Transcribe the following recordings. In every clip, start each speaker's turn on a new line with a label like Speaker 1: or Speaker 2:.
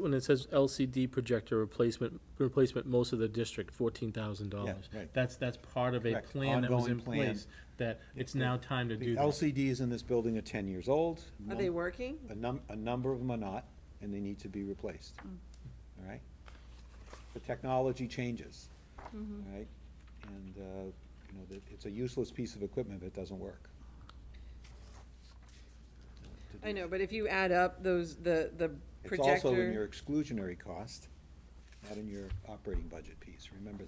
Speaker 1: When it says LCD projector replacement, replacement most of the district, fourteen thousand dollars.
Speaker 2: Yeah, right.
Speaker 1: That's, that's part of a
Speaker 2: Correct.
Speaker 1: plan that was
Speaker 2: Ongoing
Speaker 1: in
Speaker 2: plan.
Speaker 1: place, that it's now time to do
Speaker 2: The
Speaker 1: this.
Speaker 2: LCDs in this building are ten years old.
Speaker 3: Are they working?
Speaker 2: A num, a number of them are not, and they need to be replaced.
Speaker 3: Hmm.
Speaker 2: All right? The technology changes, all
Speaker 3: Mm-hmm.
Speaker 2: right? And, uh, you know, that- it's a useless piece of equipment if it doesn't work.
Speaker 3: I know, but if you add up those, the, the
Speaker 2: It's also in your
Speaker 3: projector,
Speaker 2: exclusionary cost, not in your operating budget piece, remember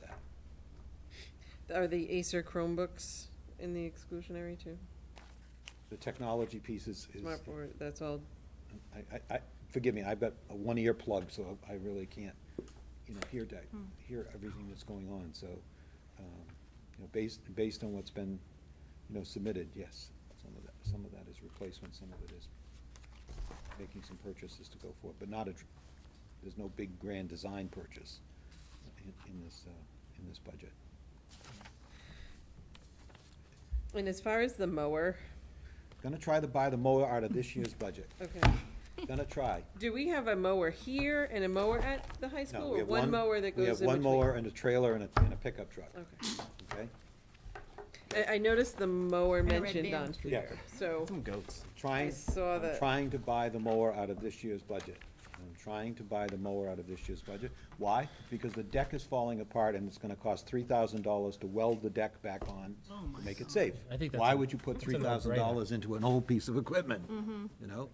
Speaker 2: that.
Speaker 3: are the Acer Chromebooks in the exclusionary too?
Speaker 2: The technology piece is, is,
Speaker 3: Smartboard, that's all,
Speaker 2: I, I, I, forgive me, I've got a one-ear plug, so I really can't, you know, hear that,
Speaker 3: Hmm.
Speaker 2: hear everything that's going on, so, um, you know, based, based on what's been, you know, submitted, yes, some of that, some of that is replacement, some of it is making some purchases to go for it, but not a, tr- there's no big grand design purchase in, in this, uh, in this budget.
Speaker 3: and as far as the mower,
Speaker 2: Gonna try to buy the mower out of this year's budget,
Speaker 3: okay,
Speaker 2: gonna try.
Speaker 3: do we have a mower here and a mower at the high
Speaker 2: No,
Speaker 3: school?
Speaker 2: we
Speaker 3: Or
Speaker 2: have
Speaker 3: one mower that goes in
Speaker 2: We have one
Speaker 3: between? Oh.
Speaker 2: mower and a trailer and a, and a pickup truck,
Speaker 3: Okay,
Speaker 2: okay?
Speaker 3: I, I noticed the mower
Speaker 4: And a red
Speaker 3: mentioned
Speaker 4: band.
Speaker 3: on,
Speaker 2: Yeah,
Speaker 3: so,
Speaker 5: goats.
Speaker 2: trying,
Speaker 3: I saw
Speaker 2: I'm
Speaker 3: that.
Speaker 2: trying to buy the mower out of this year's budget. I'm trying to buy the mower out of this year's budget. Why? Because the deck is falling apart and it's gonna cost three thousand dollars to weld the deck back on to make it safe.
Speaker 1: I think that's
Speaker 2: Why
Speaker 1: a-
Speaker 2: would you put
Speaker 1: that's a
Speaker 2: three
Speaker 1: no-brainer.
Speaker 2: thousand dollars into an old piece of equipment?
Speaker 3: Mm-hmm.
Speaker 2: You know?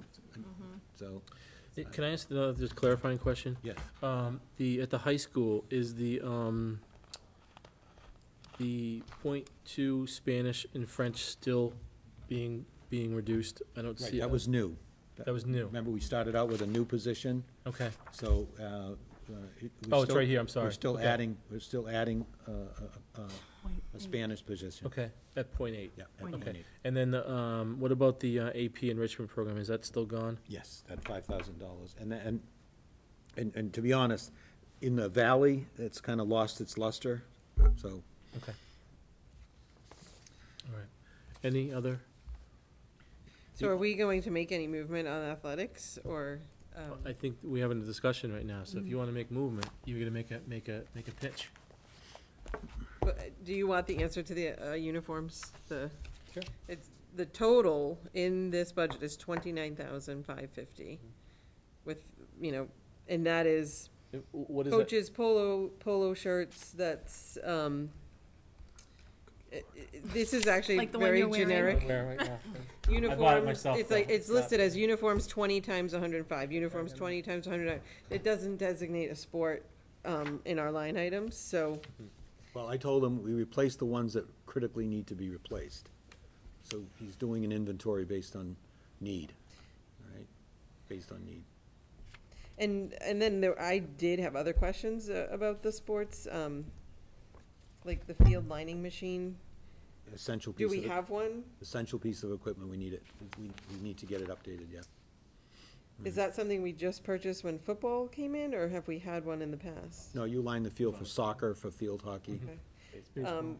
Speaker 2: So,
Speaker 1: It- Eh, Can I ask another just clarifying question?
Speaker 2: yes,
Speaker 1: Um, the, at the high school, is the, um, the point two Spanish and French still being, being reduced? I don't
Speaker 2: right,
Speaker 1: see.
Speaker 2: that
Speaker 1: it.
Speaker 2: was new.
Speaker 1: That was new,
Speaker 2: Remember, we started out with a new position,
Speaker 1: okay.
Speaker 2: so, uh, uh. it- we're
Speaker 1: Oh, it's
Speaker 2: still-
Speaker 1: right here, I'm sorry.
Speaker 2: We're still
Speaker 1: Okay.
Speaker 2: adding, we're still adding, uh, uh, uh, a Spanish position.
Speaker 1: Okay, at point eight.
Speaker 2: Yeah.
Speaker 4: Point
Speaker 2: and-
Speaker 1: Okay, and then, the, um, what about the uh, AP enrichment program, is that still gone?
Speaker 2: Yes, that five thousand dollars, and, tha- and, and, and to be honest, in the valley, it's kind of lost its luster, so.
Speaker 1: Okay. All right, any other,
Speaker 3: so are we going to make any movement on athletics or, um,
Speaker 1: I think we have a discussion right now, so if you wanna make movement, you're gonna make a, make a, make a pitch.
Speaker 3: But uh, do you want the answer to the uh, uniforms, the?
Speaker 2: Sure.
Speaker 3: It's, the total in this budget is twenty-nine thousand five fifty with, you know, and that is
Speaker 1: Uh, wh- What Mm-hmm. is that?
Speaker 3: coaches polo, polo shirts, that's, um, i- i- this is actually
Speaker 4: Like the one you're
Speaker 3: very
Speaker 4: wearing?
Speaker 3: generic.
Speaker 1: Where right now?
Speaker 3: Uniforms,
Speaker 1: myself,
Speaker 3: it's like,
Speaker 1: though.
Speaker 3: it's listed as uniforms twenty times hundred and five, uniforms twenty times hundred and five. It doesn't designate a sport, um, in our line items, so.
Speaker 2: Well, I told him, we replace the ones that critically need to be replaced. So he's doing an inventory based on need, all right, based on need.
Speaker 3: And and then there, I did have other questions uh, about the sports, um, like the field lining machine.
Speaker 2: Essential piece
Speaker 3: Do
Speaker 2: of.
Speaker 3: we
Speaker 2: e-
Speaker 3: have one?
Speaker 2: Essential piece of equipment, we need it, we, we need to get it updated, yeah. Mhm.
Speaker 3: Is that something we just purchased when football came in, or have we had one in the past?
Speaker 2: No, you line the field for soccer, for field hockey.
Speaker 3: Okay. Um,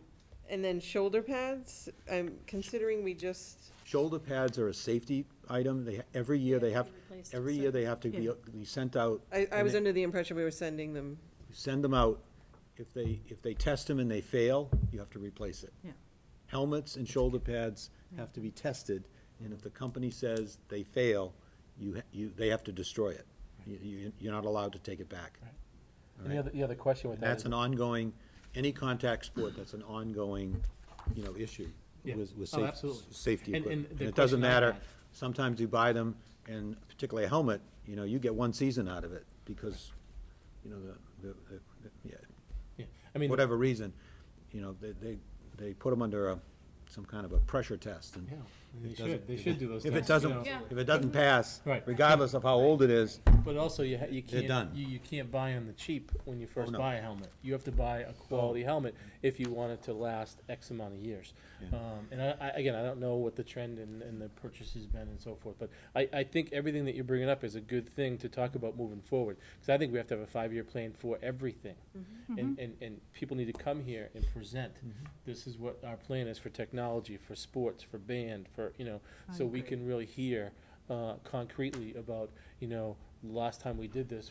Speaker 3: and then shoulder pads. I'm considering we just.
Speaker 2: Shoulder pads are a safety item, they, every year they have,
Speaker 4: Replaced,
Speaker 2: every
Speaker 4: so-
Speaker 2: year they have to be,
Speaker 3: Yeah.
Speaker 2: be sent out.
Speaker 3: I, I
Speaker 2: and
Speaker 3: was
Speaker 2: they-
Speaker 3: under the impression we were sending them.
Speaker 2: send them out. If they, if they test them and they fail, you have to replace it.
Speaker 4: Yeah.
Speaker 2: Helmets and shoulder pads have to be tested, and if the company says they fail, you, ha- you, they have to destroy it. You- You, you're not allowed to take it back. All
Speaker 1: The
Speaker 2: right?
Speaker 1: other, the other question with
Speaker 2: And
Speaker 1: that
Speaker 2: that's
Speaker 1: is,
Speaker 2: an ongoing, any contact sport, that's an ongoing, you know, issue
Speaker 1: Yeah.
Speaker 2: with, with
Speaker 1: Oh,
Speaker 2: safe-
Speaker 1: absolutely.
Speaker 2: safety
Speaker 1: And-
Speaker 2: equipment.
Speaker 1: and
Speaker 2: And
Speaker 1: the
Speaker 2: it doesn't
Speaker 1: question I
Speaker 2: matter,
Speaker 1: had-
Speaker 2: sometimes you buy them, and particularly a helmet, you know, you get one season out of it, because, you know, the, the, the- yeah,
Speaker 1: yeah, I mean,
Speaker 2: whatever reason, you know, they, they, they put them under a, some kind of a pressure test, and
Speaker 1: yeah,
Speaker 2: it
Speaker 1: they
Speaker 2: doesn't-
Speaker 1: should, they should do those
Speaker 2: if
Speaker 1: things,
Speaker 2: it
Speaker 1: you
Speaker 2: doesn't,
Speaker 1: know.
Speaker 4: Yeah.
Speaker 2: if it doesn't pass,
Speaker 1: Right.
Speaker 2: regardless of how old it is,
Speaker 1: But also, you, ha- you
Speaker 2: They're
Speaker 1: can't,
Speaker 2: done.
Speaker 1: you, you can't buy on the cheap when you first
Speaker 2: Oh, no. Oh.
Speaker 1: buy a helmet. You have to buy a quality helmet if you want it to last X amount of years.
Speaker 2: Yeah.
Speaker 1: Um, and I, I, again, I don't know what the trend and, and the purchase has been and so forth, but I, I think everything that you're bringing up is a good thing to talk about moving forward. Cause I think we have to have a five-year plan for everything. And, and, and people need to come here and present,
Speaker 2: Mm-hmm.
Speaker 1: this is what our plan is for technology, for sports, for band, for, you know, so we can really hear, uh, concretely about, you know, last time we did this,